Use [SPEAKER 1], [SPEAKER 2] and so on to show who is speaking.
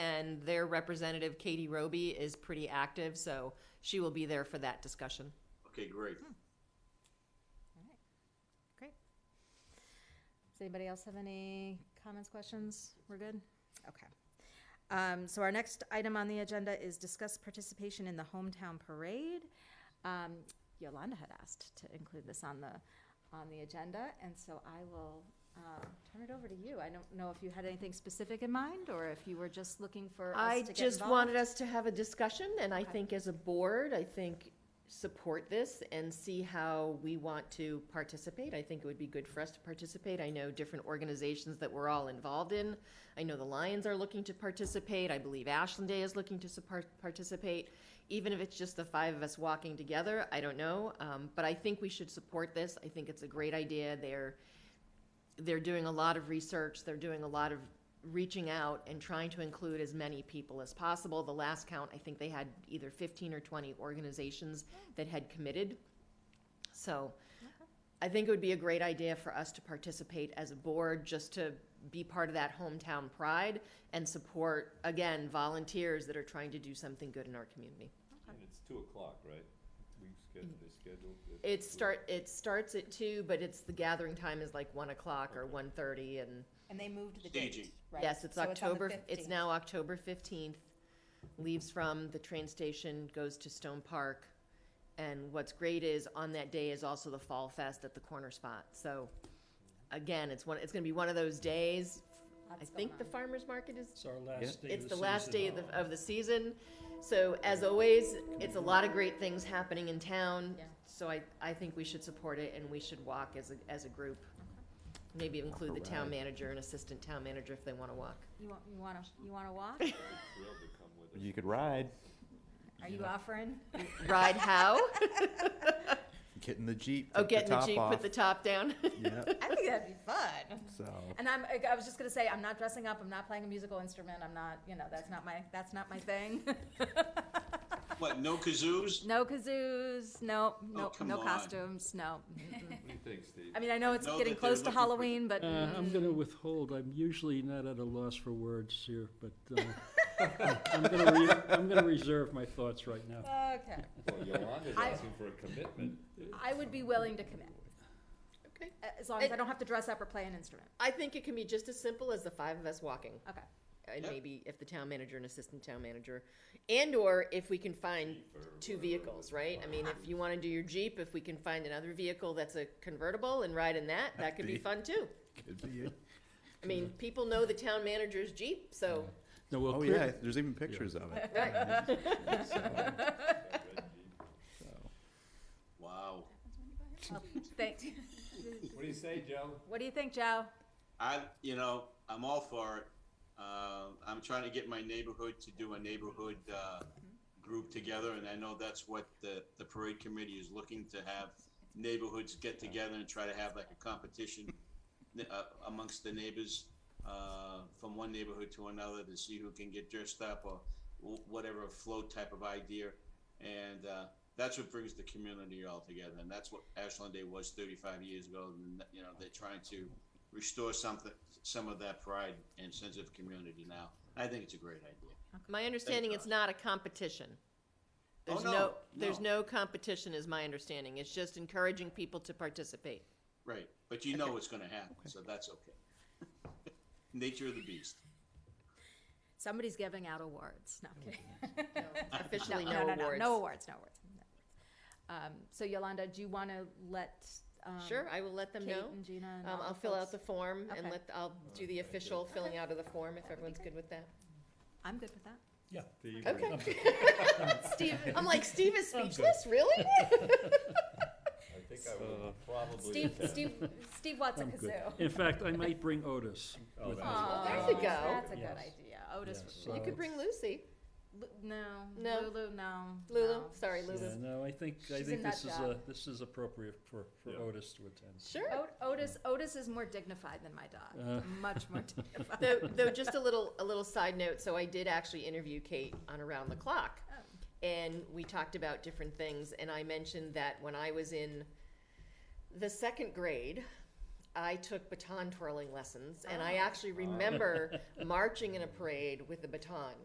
[SPEAKER 1] and their representative, Katie Roby, is pretty active, so she will be there for that discussion.
[SPEAKER 2] Okay, great.
[SPEAKER 3] Great. Does anybody else have any comments, questions? We're good? Okay. Um, so our next item on the agenda is discuss participation in the hometown parade. Um, Yolanda had asked to include this on the, on the agenda, and so I will, um, turn it over to you. I don't know if you had anything specific in mind, or if you were just looking for us to
[SPEAKER 1] I
[SPEAKER 3] get
[SPEAKER 1] just
[SPEAKER 3] involved.
[SPEAKER 1] wanted us to have a discussion, and I think as a board, I think support this and see how we want to participate. I think it would be good for us to participate. I know different organizations that we're all involved in. I know the Lions are looking to participate. I believe Ashland Day is looking to support, participate. Even if it's just the five of us walking together, I don't know. Um, but I think we should support this. I think it's a great idea. They're they're doing a lot of research, they're doing a lot of reaching out and trying to include as many people as possible. The last count, I think they had either fifteen or twenty organizations that had committed. So I think it would be a great idea for us to participate as a board, just to be part of that hometown pride and support, again, volunteers that are trying to do something good in our community.
[SPEAKER 4] And it's two o'clock, right? We scheduled, they scheduled.
[SPEAKER 1] It start, it starts at two, but it's, the gathering time is like one o'clock or one thirty and
[SPEAKER 5] And they moved the
[SPEAKER 2] Staging.
[SPEAKER 5] date, right?
[SPEAKER 1] Yes, it's
[SPEAKER 5] So on the
[SPEAKER 1] October, it's
[SPEAKER 5] 15th.
[SPEAKER 1] now October 15th. Leaves from the train station, goes to Stone Park. And what's great is on that day is also the Fall Fest at the corner spot. So again, it's one, it's going to be one of those days. I
[SPEAKER 3] Lots going
[SPEAKER 1] think the
[SPEAKER 3] on.
[SPEAKER 1] farmer's market is
[SPEAKER 6] It's our last day of the season.
[SPEAKER 1] it's the last day of the, of the season. So as always, it's a lot of great things happening in town.
[SPEAKER 3] Yeah.
[SPEAKER 1] So I, I think we should support it and we should walk as a, as a group. Maybe include the town manager and assistant town manager if they want to walk.
[SPEAKER 3] You want, you wanna, you wanna walk?
[SPEAKER 4] Thrilled to come with us.
[SPEAKER 7] You could ride,
[SPEAKER 3] Are you offering?
[SPEAKER 1] Ride how?
[SPEAKER 7] get in the Jeep,
[SPEAKER 1] Oh,
[SPEAKER 7] take
[SPEAKER 1] get in the
[SPEAKER 7] top
[SPEAKER 1] Jeep,
[SPEAKER 7] off.
[SPEAKER 1] put the top down.
[SPEAKER 7] Yep,
[SPEAKER 5] I think that'd be fun.
[SPEAKER 7] so.
[SPEAKER 3] And I'm, I was just gonna say, I'm not dressing up, I'm not playing a musical instrument, I'm not, you know, that's not my, that's not my thing.
[SPEAKER 2] What, no kazoos?
[SPEAKER 3] No kazoos, no,
[SPEAKER 1] Oh,
[SPEAKER 3] no,
[SPEAKER 2] come
[SPEAKER 3] no
[SPEAKER 2] on.
[SPEAKER 3] costumes, no.
[SPEAKER 4] What do you think, Steve?
[SPEAKER 3] I mean, I know it's
[SPEAKER 2] know
[SPEAKER 3] getting
[SPEAKER 2] that they're
[SPEAKER 3] close to
[SPEAKER 2] looking for-
[SPEAKER 3] Halloween, but
[SPEAKER 6] Uh, I'm going to withhold. I'm usually not at a loss for words here, but uh, I'm going to re- I'm going to reserve my thoughts right now.
[SPEAKER 3] Okay,
[SPEAKER 4] Well, Yolanda's
[SPEAKER 3] I-
[SPEAKER 4] asking for a commitment.
[SPEAKER 3] I would be willing to commit,
[SPEAKER 1] Okay.
[SPEAKER 3] a- as long as I don't have to dress up or play an instrument,
[SPEAKER 1] I think it can be just as simple as the five of us walking.
[SPEAKER 3] okay.
[SPEAKER 1] And
[SPEAKER 2] Yep.
[SPEAKER 1] maybe if the town manager and assistant town manager, and or if we can find two vehicles, right? I mean, if you wanna do your Jeep, if we can find another vehicle that's a convertible and ride in that, that could be fun too.
[SPEAKER 7] Could be it.
[SPEAKER 1] I mean, people know the town manager's Jeep, so,
[SPEAKER 6] No, well,
[SPEAKER 7] Oh,
[SPEAKER 6] clear-
[SPEAKER 7] yeah, there's even pictures of it.
[SPEAKER 1] right,
[SPEAKER 2] Wow.
[SPEAKER 3] Thanks,
[SPEAKER 4] What do you say, Joe?
[SPEAKER 3] what do you think, Joe?
[SPEAKER 2] I, you know, I'm all for it. Uh, I'm trying to get my neighborhood to do a neighborhood, uh, group together, and I know that's what the, the parade committee is looking to have neighborhoods get together and try to have like a competition uh, amongst the neighbors, uh, from one neighborhood to another to see who can get dressed up or wh- whatever float type of idea. And, uh, that's what brings the community all together, and that's what Ashland Day was thirty-five years ago, and, you know, they're trying to restore something, some of that pride and sense of community now. I think it's a great idea.
[SPEAKER 1] my understanding, it's
[SPEAKER 2] God.
[SPEAKER 1] not a competition.
[SPEAKER 2] Oh,
[SPEAKER 1] There's
[SPEAKER 2] no,
[SPEAKER 1] no, there's
[SPEAKER 2] no.
[SPEAKER 1] no competition is my understanding, it's just encouraging people to participate.
[SPEAKER 2] Right, but you know what's going to happen, so that's okay. Nature of the beast.
[SPEAKER 3] Somebody's giving out awards, no, I'm kidding.
[SPEAKER 1] Officially, no awards.
[SPEAKER 3] No awards, no awards. no. Um, so Yolanda, do you wanna let, um,
[SPEAKER 1] Sure, I will let them
[SPEAKER 3] Kate
[SPEAKER 1] know.
[SPEAKER 3] and Gina and
[SPEAKER 1] Um,
[SPEAKER 3] all
[SPEAKER 1] I'll
[SPEAKER 3] the
[SPEAKER 1] fill out
[SPEAKER 3] folks.
[SPEAKER 1] the form and
[SPEAKER 3] Okay.
[SPEAKER 1] let, I'll do the official filling out of the form if everyone's good with that.
[SPEAKER 3] I'm good with that.
[SPEAKER 6] Yeah.
[SPEAKER 1] Okay. Steve, I'm like, Steve is speechless, really?
[SPEAKER 4] I think I would probably.
[SPEAKER 3] Steve, Steve, Steve wants a
[SPEAKER 6] I'm good.
[SPEAKER 3] kazoo.
[SPEAKER 6] In fact, I might bring Otis.
[SPEAKER 4] Oh,
[SPEAKER 6] with me.
[SPEAKER 4] that's-
[SPEAKER 1] There you go.
[SPEAKER 3] That's a good
[SPEAKER 6] Yes.
[SPEAKER 3] idea. Otis.
[SPEAKER 6] Yes,
[SPEAKER 3] would-
[SPEAKER 1] You could bring Lucy.
[SPEAKER 3] Lu- No,
[SPEAKER 1] No.
[SPEAKER 3] Lulu, no.
[SPEAKER 1] Lulu,
[SPEAKER 3] no.
[SPEAKER 1] sorry,
[SPEAKER 6] Yeah,
[SPEAKER 1] Lulu.
[SPEAKER 6] no, I think, I
[SPEAKER 3] She's a
[SPEAKER 6] think
[SPEAKER 3] nut
[SPEAKER 6] this is,
[SPEAKER 3] job.
[SPEAKER 6] uh, this is appropriate for, for
[SPEAKER 4] Yeah.
[SPEAKER 6] Otis to attend.
[SPEAKER 1] Sure.
[SPEAKER 3] Ot- Otis, Otis is more dignified than my dog,
[SPEAKER 6] Uh.
[SPEAKER 3] much more dignified.
[SPEAKER 1] Though, though, just a little, a little side note, so I did actually interview Kate on Around the Clock.
[SPEAKER 3] Oh.
[SPEAKER 1] And we talked about different things, and I mentioned that when I was in the second grade, I took baton twirling lessons, and I actually remember marching in a parade with a baton.